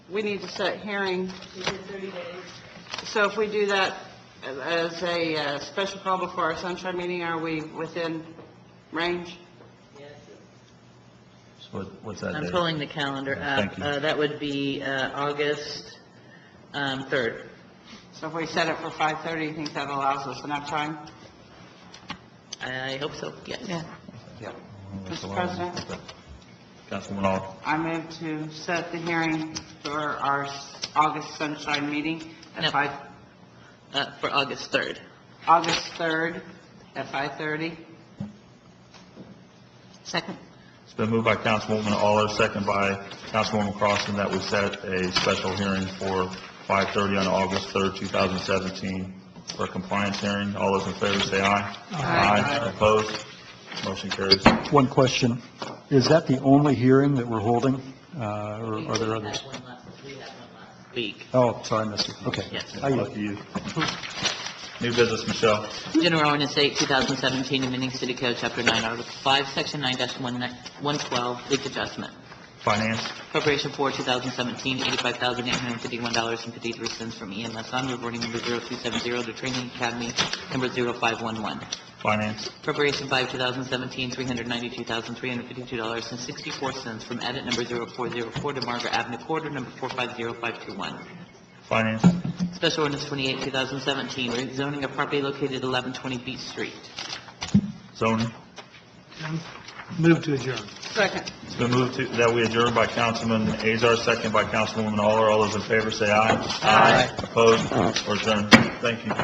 we need to set hearing. We did 30 days. So if we do that as a uh, special call before our sunshine meeting, are we within range? Yes, So what- What's that I'm date? pulling the calendar up. Thank you. Uh, That would be uh, August um, 3rd. So if we set it for 5:30, you think that allows us enough time? I hope so, yes. Yeah. That's a Mr. lot. President? Okay. Councilwoman Alt, I move to set the hearing for our s- August sunshine meeting No. at 5, Uh, For August 3rd. August 3rd at 5:30. Second. it's been moved by Councilwoman Aller, second by Councilwoman Crossen, that we set a special hearing for 5:30 on August 3rd, 2017, for a compliance hearing. All those in favor say aye. Aye. Opposed? Motion carries. One question. Is that the only hearing that we're holding, uh, or are there others? We had one last- we had one last Week. Oh, sorry, I missed it. Okay. Yes. I- Lucky you. New business, Michelle. General Ordinance 8, 2017, amending City Code, Chapter 9, Article 5, Section 9-112, leak adjustment. Finance, Appropriation for 2017, $85,851.53 from EMS on reporting number 0270 to Training Academy number 0511. finance, Appropriation 5, 2017, $392,352.64 from edit number 0404 to Margaret Avenue Corridor number 450521. finance, Special ordinance 28, 2017, rezoning of property located at 1120 Beach Street. zoning. Move to adjourn. Second. It's been moved to- that we adjourn by Councilman Azar, second by Councilwoman Aller. All those in favor say aye. Aye. Opposed or adjourned? Thank you.